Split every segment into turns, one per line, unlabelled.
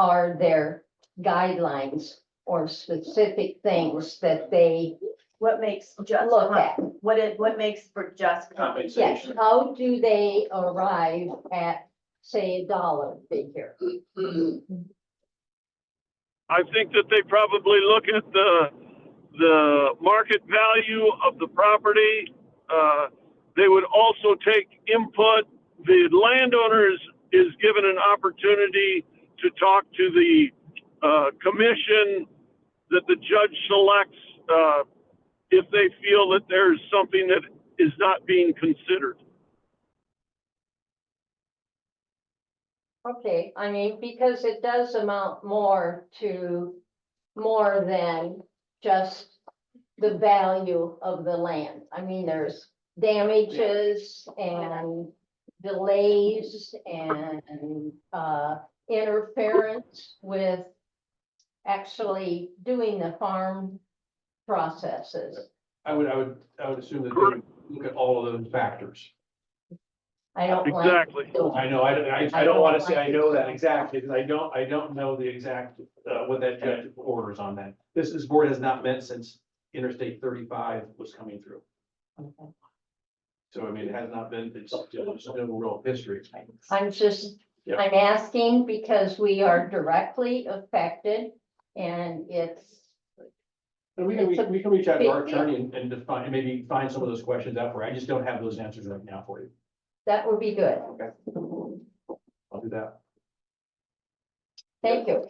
are there guidelines or specific things that they
What makes just,
look
comp-
at?
what it, what makes for just compensation?
Yes, how do they arrive at, say, a dollar figure?
I think that they probably look at the, the market value of the property. Uh, They would also take input. The landowner is, is given an opportunity to talk to the, uh, commission that the judge selects, uh, if they feel that there's something that is not being considered.
Okay, I mean, because it does amount more to, more than just the value of the land. I mean, there's damages and delays and, uh, interference with actually doing the farm processes.
I would, I would, I would assume that they would look at all of those factors.
I don't like
Exactly.
doing
I know, I, I, I don't wanna say I know that exactly, because I don't, I don't know the exact, uh, what that judge orders on that. This, this board has not met since Interstate thirty-five was coming through.
Okay.
So I mean, it has not been, it's, there's no real history.
I'm just,
Yeah.
I'm asking because we are directly affected and it's,
And we can, we can- we can reach out to our
Big deal.
attorney and, and define, and maybe find some of those questions out for, you. I just don't have those answers right now for you.
that would be good.
I'll do that.
Thank you.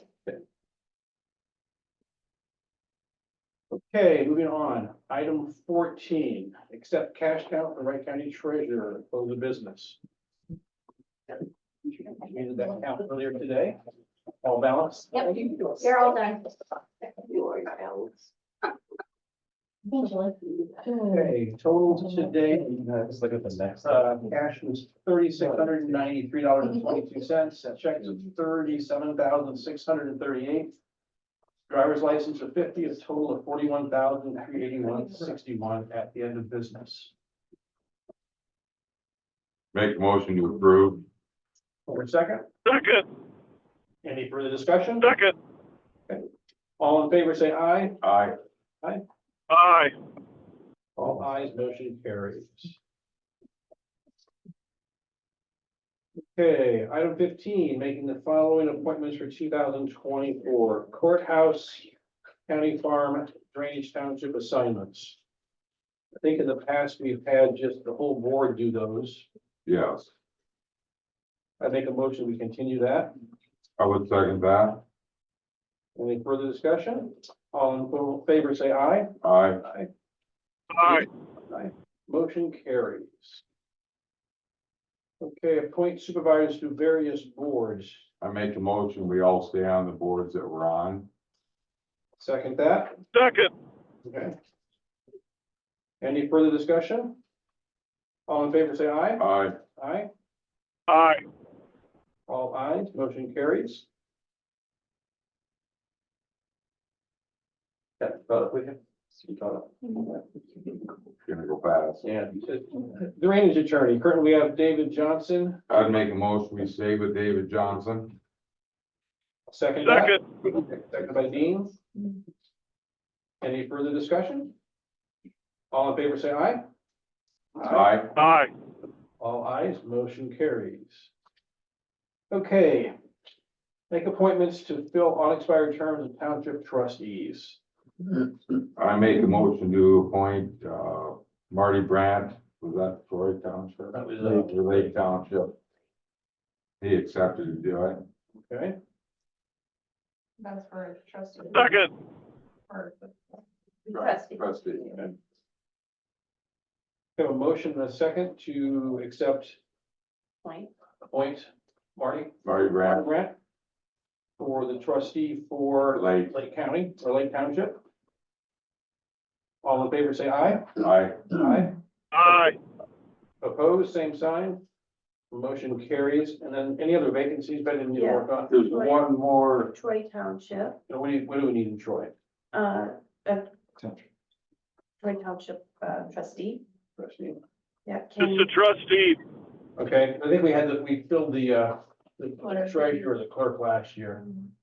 Okay, moving on, item fourteen, accept cash count from Wright County Treasurer, close of business. We did that count earlier today, all balanced.
Yep.
You're all done.
Okay, total today, let's look at the next, uh, cash was thirty-six hundred and ninety-three dollars and twenty-two cents, checks of thirty-seven thousand six hundred and thirty-eight. Driver's license of fifty, a total of forty-one thousand three eighty-one sixty-one at the end of business.
Make a motion to approve.
For a second,
Second,
any further discussion?
second,
All in favor, say aye.
Aye.
aye.
All ayes, motion carries. Okay, item fifteen, making the following appointments for two thousand twenty-four courthouse, county farm, drainage township assignments. I think in the past, we've had just the whole board do those.
Yes,
I make a motion, we continue that.
I would second that.
Any further discussion? All in favor, say aye.
Aye.
Aye.
Aye.
Motion carries. Okay, appoint supervisors to various boards.
I make a motion, we all stay on the boards that we're on.
Second that,
Second,
okay? Any further discussion? All in favor, say aye.
Aye.
Aye.
aye.
All ayes, motion carries. Yeah, thought we had.
Gonna go fast.
uh, Yeah, drainage attorney, currently we have David Johnson,
I'd make a motion, we stay with David Johnson.
second. that.
Second,
Second by Dean. Any further discussion? All in favor, say aye.
Aye.
aye.
All ayes, motion carries. Okay. Make appointments to fill unexpired terms of township trustees.
I make a motion to appoint, uh, Marty Brandt, was that Troy Township?
That was, uh,
Lake- Lake Township. He accepted to do it.
Okay,
That's for trustee.
Second,
Or the-
Trustee.
Trustee.
have a motion and a second to accept
Point.
appoint Marty
Marty Brandt,
Grant for the trustee for
Lake.
Lake County or Lake Township. All in favor, say aye.
Aye.
Aye.
aye.
Opposed, same sign. Motion carries. And then any other vacancies that didn't
Yeah.
work on?
There's
one
more.
Troy Township,
What do you, what do we need in Troy?
uh, uh, Troy Township uh, trustee,
Trustee.
yeah,
It's
Kenny,
the trustee.
Okay, I think we had, the- we filled the, uh, the
Clerk.
treasurer, the clerk last year.
Mhm.